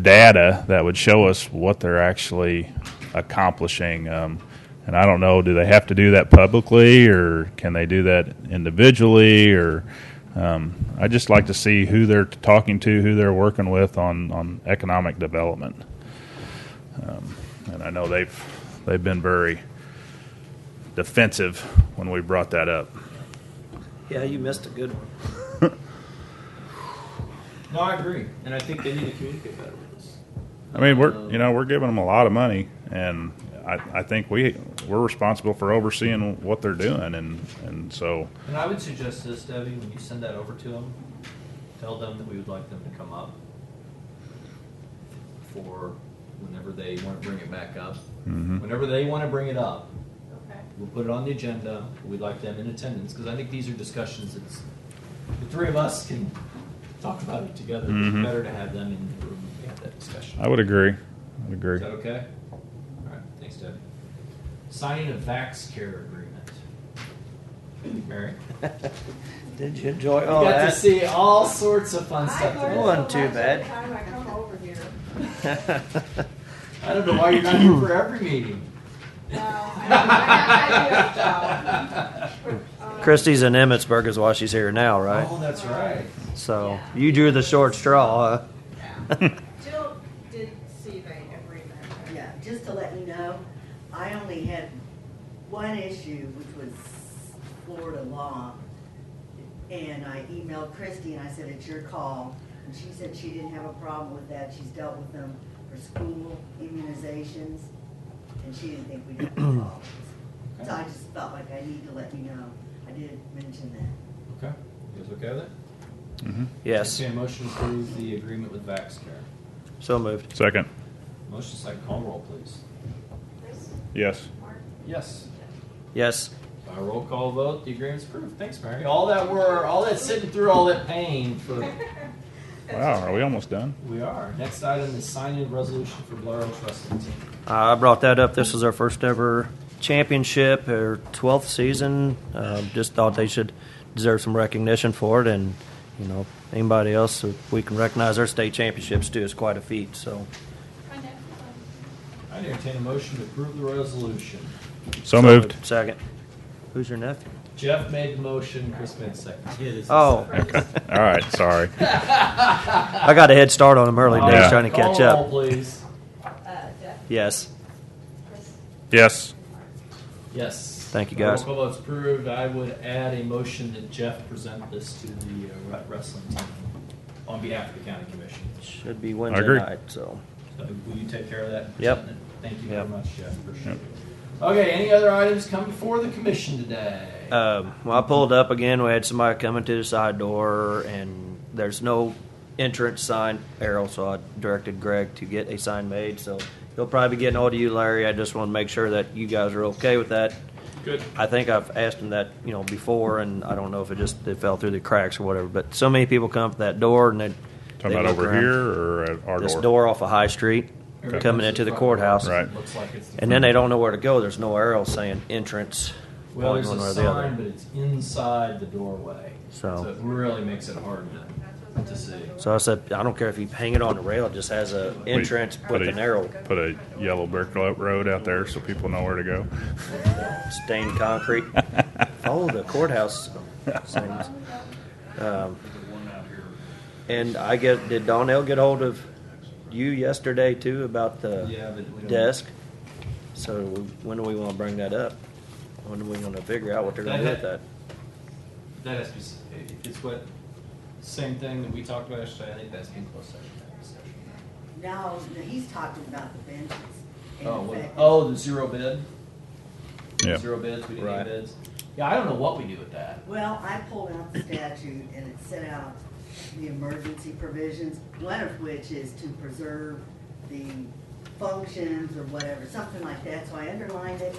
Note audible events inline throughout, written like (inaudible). data that would show us what they're actually accomplishing. Um, and I don't know, do they have to do that publicly or can they do that individually? Or um, I just like to see who they're talking to, who they're working with on, on economic development. Um, and I know they've they've been very defensive when we brought that up. Yeah, you missed a good (laughs) one. No, I agree, and I think they need to communicate better with us. I mean, we're you know we're giving them a lot of money, and I, I think we we're responsible for overseeing what they're doing, and and so And I would suggest this, Debbie, when you send that over to them, tell them that we would like them to come up for whenever they want to bring it back up. Whenever they want to bring it up, Okay. we'll put it on the agenda. We'd like them in attendance because I think these are discussions that the three of us can talk about it together. but It's Mhm. better to have them in the room when we have that discussion. I would agree, I would agree. Is that okay? All right, thanks, Debbie. Signing a Vax Care agreement. Mary? Did you enjoy You all got to that? see all sorts of fun I stuff. learn today. learned- Wasn't so too much bad. every time I come over here. I don't know why you're not here for every meeting. Well, I, I, I do, so. (laughs) um, Christie's in Emmitsburg is why she's here now, right? Oh, that's right. So you drew the short straw. Huh? yeah. um, Jill did see the agreement. right? Yeah, just to let you know, I only had one issue, which was Florida law. And I emailed Christie and I said, it's your call. And she said she didn't have a problem with that. She's dealt with them for school immunizations. And she didn't think we'd have any problems. So I just felt like I need to let you know. I did mention that. Okay. You guys okay with it? hmm Yes. Okay, motion to approve the agreement with Vax Care. So moved. Second, Motion second, call roll, please. Chris, yes, Mark, Yes. Yes. By roll call vote, the agreement's approved. Thanks, Mary. All that were, all that sitting through all that pain for. wow, are we almost done? We are. Next item is signing resolution for Blair Wrestling Team. I brought that up. This is our first ever championship or 12th season. Um, just thought they should deserve some recognition for it. And, you know, anybody else, if we can recognize their state championships too, is quite a feat. So I entertain a motion to approve the resolution. So moved. Second. Who's your nephew? Jeff made the motion, Chris made the second. Oh, Okay. All right, sorry. (laughs) I got a head start on him early All days Oh, Yeah. trying to catch Call roll, up. please. uh, Jeff, Yes. Chris, Yes, Yes. Thank you, Roll guys. call vote's approved. I would add a motion that Jeff present this to the uh, re- wrestling team on behalf of the county commission. Should be Wednesday agree. night. So, So Will you take care of that? and Yep. present it? Thank you very Yep. much, Jeff. Appreciate it. Okay, any other items come before the commission today? um, when I pulled up again, we had somebody coming to the side door, and there's no entrance sign arrow. So I directed Greg to get a sign made. So he'll probably be getting all to you, Larry. I just want to make sure that you guys are okay with that. Good. I think I've asked him that, you know, before, and I don't know if it just it fell through the cracks or whatever. But so many people come up that door, and they talking they about look over around. here or at our this door? door off of High Street, Okay. coming into the courthouse. Right. Looks like it's. the And then they don't know where to go. There's no arrow saying entrance. Well, going there's a sign, but it's inside the doorway. So- it really makes it hard to, to see. So I said, I don't care if you hang it on the rail, it just has a entrance Put with a- an arrow Put a yellow brick lo- road out there so people know where to go. stained (laughs) concrete. Follow the courthouse signs. Um, and I get, did Donnell get hold of you yesterday too about the Yeah, but we don't. desk? So when do we want to bring that up? When are we going to figure out what they're going to do with that? That has to be, it's what, same thing that we talked about yesterday, I think that's been close session. that discussion. Now, he's talking about the benches. and Oh, the well, fact that- oh, the zero bid? Yeah. Zero bids, we didn't Right. need bids. Yeah, I don't know what we do with that. Well, I pulled out the statute and it set out the emergency provisions, one of which is to preserve the functions or whatever, something like that, so I underlined it.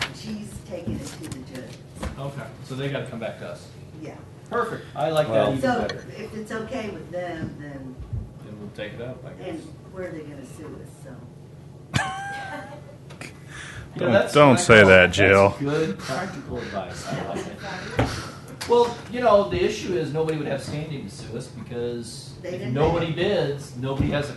and She's taking it to the judge, Okay, so they gotta come back to us. yeah. Perfect, I like that Well- even So better. if it's okay with them, then, Then we'll take it up, I guess. and where are they gonna sue us, so. Yeah, Don't- that's don't what I say call- that, that's Jill. Good practical advice, I like it. Well, you know, the issue is nobody would have standing to sue us because They if didn't nobody bids, nobody has a